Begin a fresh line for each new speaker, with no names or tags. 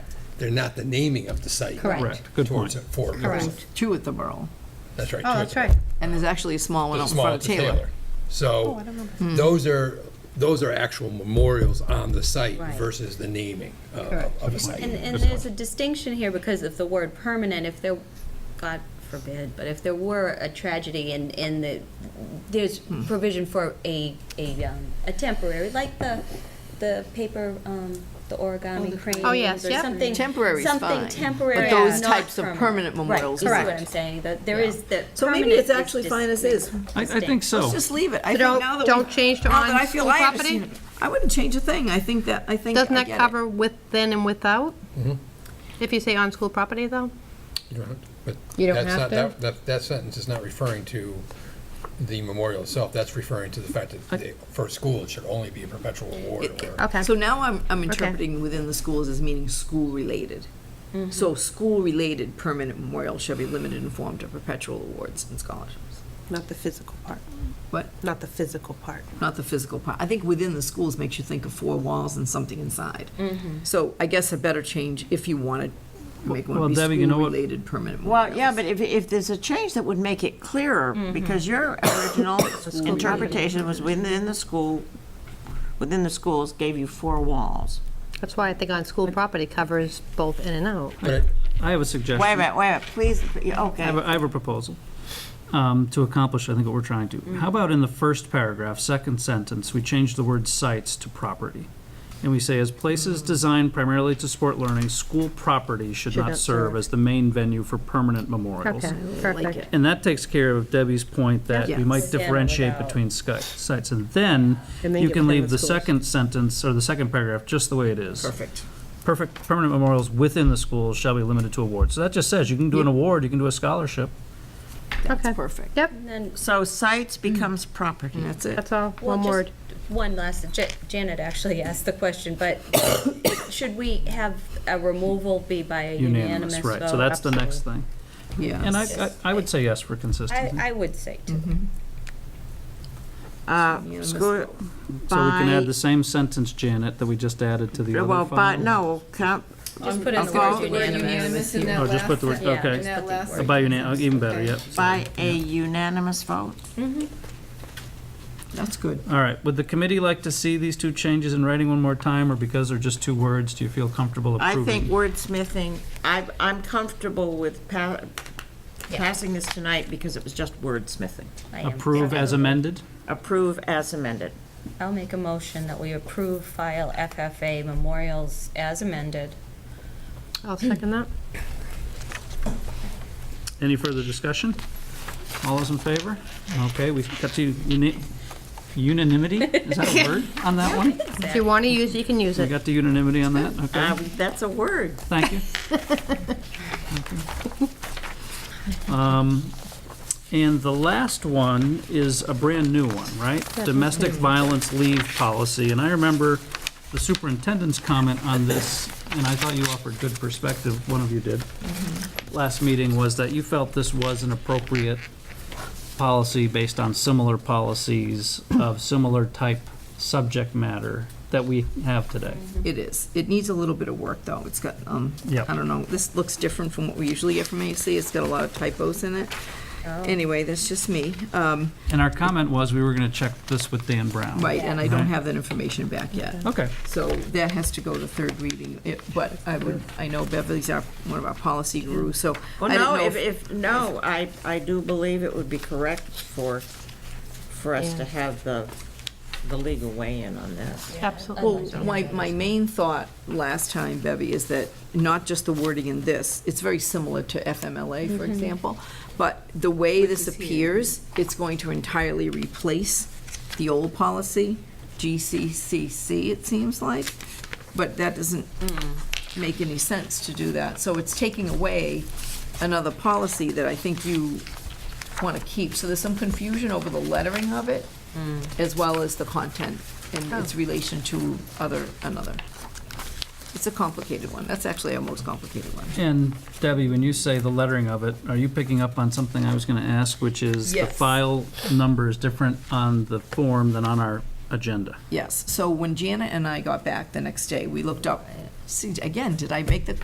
They're not the naming of the site.
Correct.
Correct, good
Towards
point.
it, for,
Correct.
two at the Borough,
that's right.
Oh,
two
that's
at
right.
and there's actually a small
the-
one out in
small
front of Hmm.
to Taylor.
Taylor.
Oh, I
So
don't remember.
those are, those are actual memorials on the site
Right.
versus the naming uh,
Correct.
of a
And,
site.
and there's a distinction here because of the word permanent, if there, God forbid, but if there were a tragedy and, and the, there's
Hmm.
provision for a, a, um, a temporary, like the, the paper, um, the origami crane.
Oh, yes, yep.
Something.
Temporary's fine,
Something
but
temporary,
those
not
types of permanent memorials
Right, you see
Correct.
what I'm saying, that there is, the
So maybe
permanent
it's
is
actually fine as
distinct.
is.
I, I think
Let's
so.
just leave it. I
So
think
don't-
now that
don't
we-
change to
now that
on
I feel
school
I have
property?
seen it, I wouldn't change a thing. I think that, I think I
Doesn't that
get it.
cover within and without?
Mm-hmm.
If you say on school property, though?
But
You don't
that's
have
not-
to?
that- That, that sentence is not referring to the memorial itself, that's referring to the fact that they- for school, it should only be a perpetual award or.
Okay.
So now I'm, I'm interpreting within the schools as meaning school-related.
Mm-hmm.
So school-related permanent memorial shall be limited in form to perpetual awards and scholarships.
Not the physical part,
What?
not the physical part.
Not the physical part. I think within the schools makes you think of four walls and something inside. So I guess a better change, if you want to make
Well,
one be
Debbie, you know what-
school-related permanent
Well,
memorials.
yeah, but if, if there's a change that would make it clearer, because your original interpretation was within the school, within the schools gave you four walls.
That's why I think on school property covers both in and out.
But
I have a suggestion.
Wait a minute, wait a minute, please,
I have,
okay.
a- I have a proposal um, to accomplish, I think, what we're trying to. How about in the first paragraph, second sentence, we change the word sites to property? And we say, as places designed primarily to support learning, school property should not serve as the main venue for permanent memorials.
Okay, perfect.
And that takes care of Debbie's point that we might
Yes. Yeah,
differentiate
without-
between sky- sites. And then
And then
you
get
can leave
permanent
the
schools.
second sentence, or the second paragraph, just the way it is.
Perfect.
Perfect, permanent memorials within the schools shall be limited to awards. So that just says, you can do an award, you can do a scholarship.
Okay.
That's perfect.
Yep,
And then
So sites becomes property.
And that's it.
that's all,
Well,
one
just
word.
One last, Ja- Janet actually asked the question, but should we have a removal be by a unanimous vote?
Right, so that's the next thing.
Yeah.
And I, I- I would say yes for consistency.
I, I would say too.
Uh, School,
So we can add
by,
the same sentence, Janet, that we just added to the other
well,
file.
by, no, count,
Just put in the
I'll
word
go-
unanimous.
in that
Oh, just put the word,
last,
Yeah,
okay.
in that last.
By unan, uh, even better, yep.
by a unanimous vote.
That's good.
All right, would the committee like to see these two changes in writing one more time, or because they're just two words, do you feel comfortable
I
approving?
think wordsmithing, I, I'm comfortable with pa- passing this tonight because it was just wordsmithing.
I am.
Approve as amended?
Approve as amended.
I'll make a motion that we approve file FFA memorials as amended.
I'll second that.
Any further discussion? All those in favor? Okay, we've got to uni- unanimity, is that a word on that one?
If you want to use it, you can use
We
it.
got the unanimity on that, okay?
Uh, That's a word.
Thank you. Thank you. Um, And the last one is a brand-new one, right? Domestic violence leave policy. And I remember the superintendent's comment on this, and I thought you offered good perspective, one of you did, last meeting, was that you felt this was an appropriate policy based on similar policies of similar type subject matter that we have today.
It is. It needs a little bit of work, though. It's got, um,
Yep.
I don't know, this looks different from what we usually get from AEC. It's got a lot of typos in it. Anyway, that's just me. Um,
And our comment was, we were going to check this with Dan Brown.
right, and I don't
Right.
have that information back yet.
Okay,
So that has to go to third reading, It- but I would, I know Beverly's our, one of our policy gurus, so I
Well,
didn't
no,
know
if, if, no, I, I do believe it would be correct for, for us to have the, the legal weigh-in on this.
Mm-hmm.
Absolutely.
Well, my, my main thought last time, Bevy, is that not just the wording in this, it's very similar to FMLA, for example, but the way this appears, it's going to entirely replace the old policy, GCCC, it seems like, but that doesn't make any sense to do that. So it's taking away another policy that I think you want to keep. So there's some confusion over the lettering of it, as well as the content and its relation to other, another. It's a complicated one. That's actually our most complicated one.
and Debbie, when you say the lettering of it, are you picking up on something I was going to ask, which is the
Yes.
file number is different on the form than on our agenda?
Yes. So when Jana and I got back the next day, we looked up, see, again, did I make the